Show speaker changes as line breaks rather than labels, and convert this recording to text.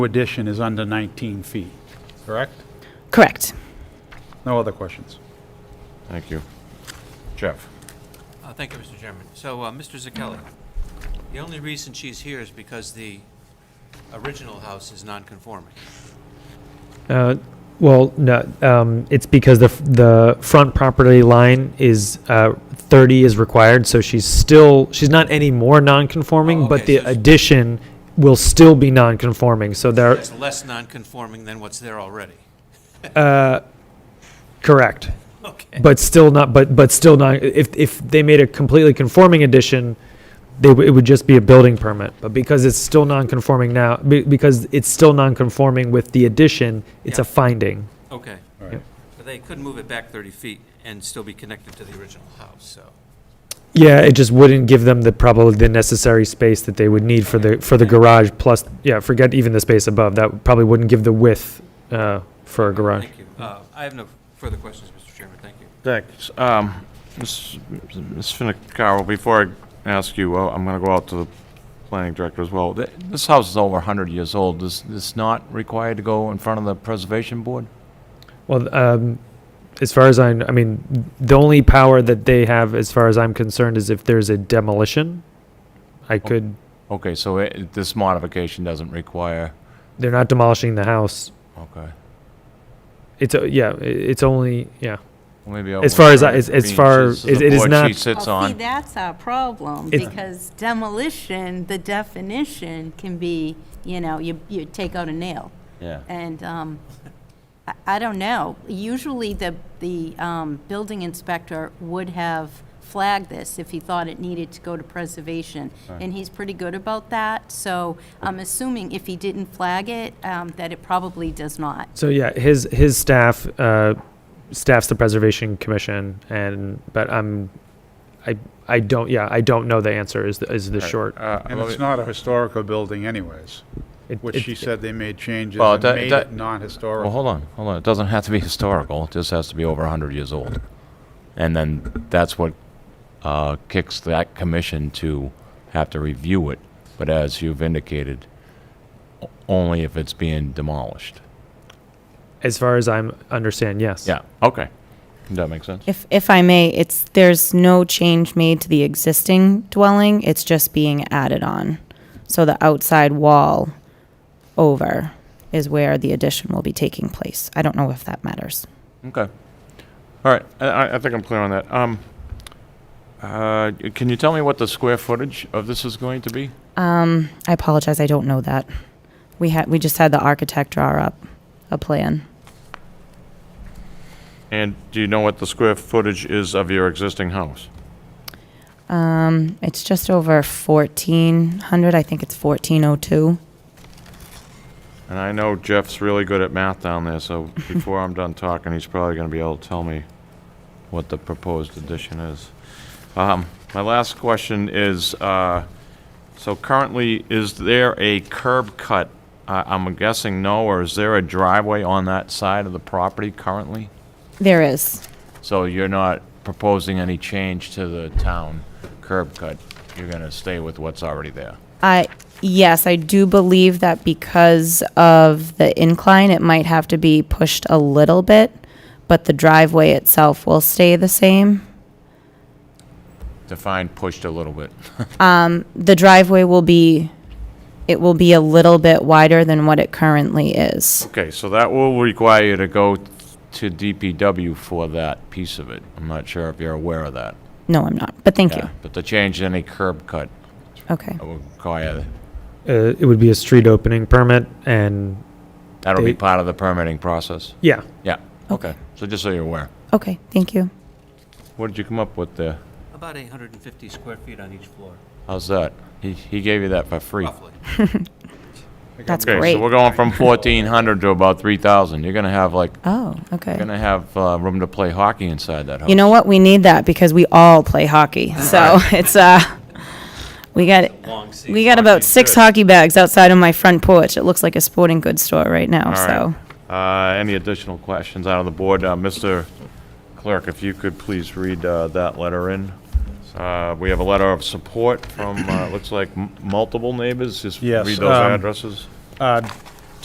addition is under 19 feet, correct?
Correct.
No other questions?
Thank you. Jeff?
Uh, Thank you, Mr. Chairman. So, uh, Mr. Zakelli, the only reason she's here is because the original house is non-conforming.
Uh, Well, no, um, it's because the, f- the front property line is, uh, thirty is required, so she's still, she's not any more
Oh,
non-conforming, but
okay,
the
so she-
addition will still be non-conforming, so there,
It's less non-conforming than what's there already.
correct.
Okay.
But still not, but, but still not, if, if they made a completely conforming addition, they, w- it would just be a building permit, but because it's still non-conforming now, be- because it's still non-conforming with the addition, it's a
Yeah.
finding.
Okay. But they could move it back 30 feet and still be connected to the original house, so.
Yeah, it just wouldn't give them the probably the necessary space that they would need for the for the garage. Plus, yeah, forget even the space above. That probably wouldn't give the width uh, for a garage.
Thank you. Uh, I have no further questions, Mr. Chairman. Thank you.
Thanks. Um, Ms. Ms. Finicaro, before I ask you, well, I'm gonna go out to the planning director as well. Th- This house is over hundred years old. Is this not required to go in front of the preservation board?
Well, um, as far as I, kn- I mean, the only power that they have, as far as I'm concerned, is if there's a demolition. I could.
Okay, so it, this modification doesn't require,
They're not demolishing the house.
okay.
It's a, yeah. i- It's only yeah.
Well, maybe I
As far as I-
wonder
as-
if it
as
means
far-
this
it-
the
it is
board
not-
She sits
Well, Oh, See,
on.
that's our problem,
It's-
because demolition, the definition can be, you know, you, you take out a nail.
Yeah.
And, um, I, I don't know, usually the, the, um, building inspector would have flagged this if he thought it needed to go to preservation. And he's pretty good about that, so I'm assuming if he didn't flag it, um, that it probably does not.
So yeah, his his staff uh, staffs the preservation commission, and but I'm, I I don't yeah I don't know the answer is the, is the short.
Uh,
And
let me-
it's not a historical building anyways,
It-
which
it-
she said they made changes
Well,
and
that-
made
that-
it non-historical.
Well, hold on, hold on. It doesn't have to be historical. It just has to be over 100 years old. And then that's what uh, kicks that commission to have to review it. But as you've indicated, o- only if it's being demolished.
As far as I'm understand, yes.
Yeah, okay. Does that make sense?
If, if I may, it's, there's no change made to the existing dwelling, it's just being added on. So the outside wall over is where the addition will be taking place. I don't know if that matters.
Okay. All right, I- I, I think I'm clear on that. Um, uh, can you tell me what the square footage of this is going to be?
Um, I apologize, I don't know that. We had, we just had the architect draw up a plan.
And do you know what the square footage is of your existing house?
Um, it's just over fourteen hundred, I think it's fourteen oh two.
And I know Jeff's really good at math down there, so before I'm done talking, he's probably gonna be able to tell me what the proposed addition is. Um, my last question is, uh, so currently, is there a curb cut? I, I'm guessing no, or is there a driveway on that side of the property currently?
There is,
So you're not proposing any change to the town curb cut? You're gonna stay with what's already there?
I, yes, I do believe that because of the incline, it might have to be pushed a little bit, but the driveway itself will stay the same.
Define pushed a little bit.
The driveway will be, it will be a little bit wider than what it currently is.
Okay, so that will require you to go to DPW for that piece of it. I'm not sure if you're aware of that.
No, I'm not, but thank you.
Yeah, But to change any curb cut,
Okay,
that will require,
Uh, it would be a street opening permit, and
that'll be
They-
part of the permitting process.
yeah,
Yeah,
Okay.
okay. So just so you're aware.
okay, thank you.
What did you come up with there?
About 850 square feet on each floor,
How's that? He, he gave you that for free.
roughly.
That's
Okay,
great.
so we're going from 1,400 to about 3,000. You're gonna have like,
Oh,
you're
okay.
gonna have uh, room to play hockey inside that house.
You know what? We need that because we all play hockey. So it's, uh, we got,
Long seat.
we got about six hockey bags outside on my front porch. It looks like a sporting goods store right now,
All
so.
right. Uh, Any additional questions out of the board? Uh, Mr. Clerk, if you could please read uh, that letter in. Uh, We have a letter of support from, uh, looks like m- multiple neighbors. Just
Yes,
read those
um,
addresses.
Uh,